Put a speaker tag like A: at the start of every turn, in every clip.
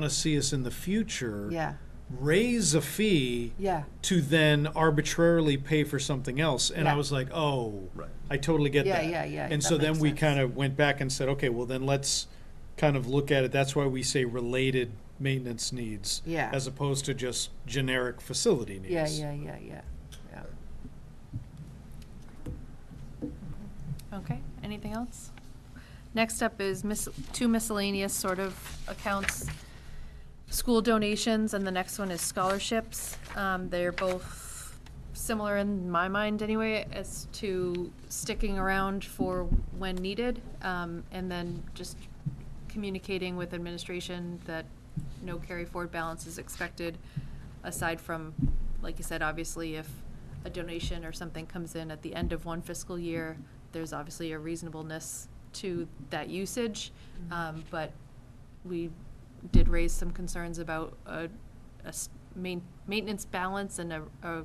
A: want to see us in the future
B: Yeah,
A: raise a fee
B: yeah.
A: to then arbitrarily pay for something else. And I
B: Yeah.
A: was like, oh,
C: Right.
A: I totally get
B: Yeah,
A: that.
B: yeah, yeah,
A: And
B: that
A: so then
B: makes
A: we
B: sense.
A: kind of went back and said, okay, well then let's kind of look at it. That's why we say related maintenance needs
B: Yeah.
A: as opposed to just generic facility needs.
B: Yeah, yeah, yeah, yeah, yeah.
D: Okay, anything else? Next up is mis- two miscellaneous sort of accounts, school donations, and the next one is scholarships. Um, they're both similar in my mind anyway, as to sticking around for when needed, um, and then just communicating with administration that no carry forward balance is expected, aside from, like you said, obviously, if a donation or something comes in at the end of one fiscal year, there's obviously a reasonableness to that usage, um, but we did raise some concerns about a, a s- main, maintenance balance and a, a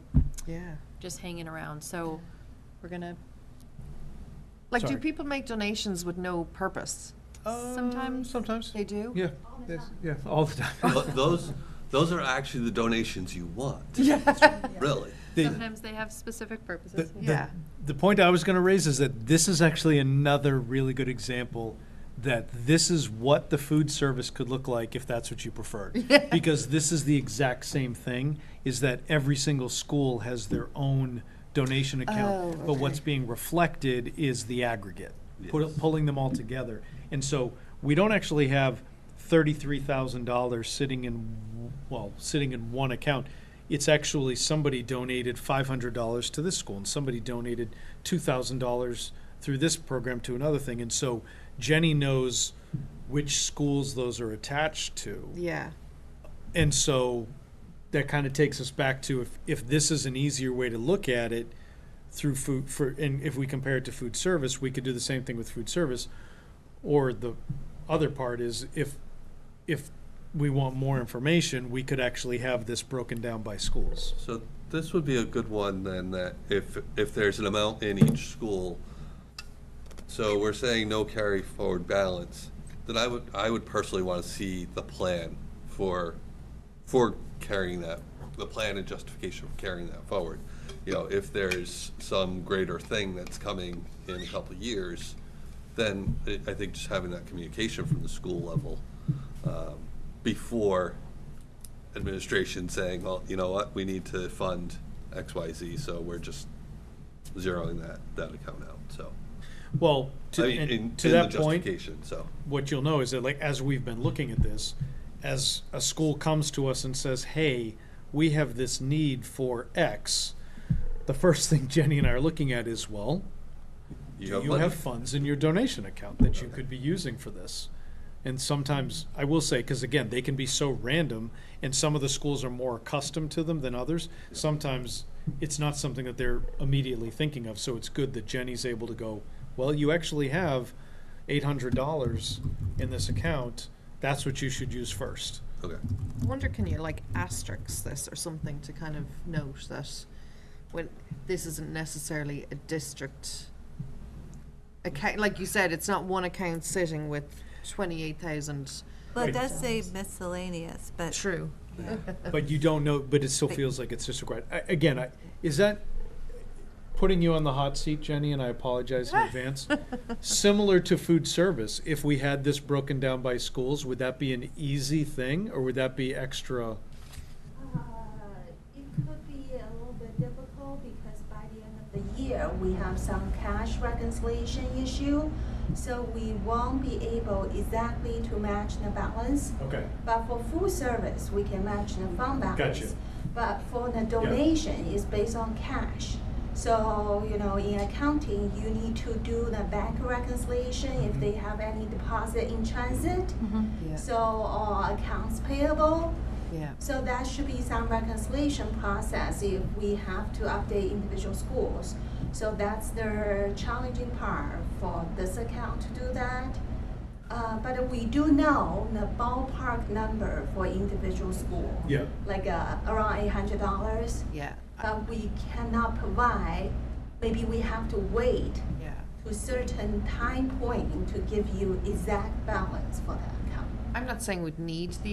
B: Yeah.
D: just hanging around, so we're gonna,
B: Like, do
A: Sorry.
B: people make donations with no purpose?
A: Uh,
D: Sometimes.
A: Sometimes.
B: They do?
A: Yeah, yes, yeah, all the
C: Tho-
A: time.
C: Those, those are actually the donations you want. Really.
A: They-
D: sometimes they have specific
A: The,
D: purposes.
A: the-
B: Yeah.
A: the point I was going to raise is that this is actually another really good example that this is what the food service could look like if that's what you preferred. because this is the exact same thing is that every single school has their own donation account,
B: Oh,
A: but what's
B: okay.
A: being reflected is the aggregate, pu-
C: Yes.
A: pulling them all together. And so we don't actually have $33,000 sitting in w- well, sitting in one account. It's actually somebody donated $500 to this school and somebody donated $2,000 through this program to another thing. And so Jenny knows which schools those are attached to.
B: Yeah.
A: And so that kind of takes us back to if, if this is an easier way to look at it through food for and if we compare it to food service, we could do the same thing with food service. Or the other part is if if we want more information, we could actually have this broken down by schools.
C: So this would be a good one then, that if, if there's an amount in each school, so we're saying no carry forward balance, then I would, I would personally want to see the plan for, for carrying that, the plan and justification for carrying that forward. You know, if there's some greater thing that's coming in a couple of years, then I- I think just having that communication from the school level um, before administration saying, well, you know what, we need to fund X, Y, Z, so we're just zeroing that, that account out, so.
A: Well, to,
C: I mean,
A: and
C: in-
A: to
C: in
A: that
C: the
A: point,
C: Justification, so,
A: what you'll know is that like as we've been looking at this as a school comes to us and says hey we have this need for x the first thing jenny and i are looking at is well
C: you
A: do
C: have
A: you
C: money.
A: have funds in your donation account that you could be using for this and sometimes i will say because again they can be so random and some of the schools are more accustomed to them than others sometimes it's not something that they're immediately thinking of so it's good that jenny's able to go well you actually have $800 in this account that's what you should use first
C: Okay,
B: I wonder, can you like asterisk this or something to kind of note that when, this isn't necessarily a district account, like you said, it's not one account sitting with twenty-eight thousand.
E: Well, it does say miscellaneous, but.
B: True.
A: but you don't know but it still feels like it's just a grad- I, again I, is that putting you on the hot seat jenny and i apologize in advance similar to food service if we had this broken down by schools would that be an easy thing or would that be extra
F: Uh, It could be a little bit difficult because by the end of the year, we have some cash reconciliation issue. So we won't be able exactly to match the balance.
A: okay
F: But for full service, we can match the fund balance.
A: Gotcha.
F: But for the donation, it's based on cash. So, you know, in accounting, you need to do the bank reconciliation if they have any deposit in transit.
B: Yeah,
F: So, or accounts payable.
B: yeah,
F: So that should be some reconciliation process if we have to update individual schools. So that's the challenging part for this account to do that. Uh, but we do know the ballpark number for individual school.
A: Yeah.
F: Like, uh, around eight hundred dollars,
B: yeah,
F: but we cannot provide, maybe we have to wait
B: yeah.
F: to certain time point to give you exact balance for that account.
B: I'm not saying we'd need the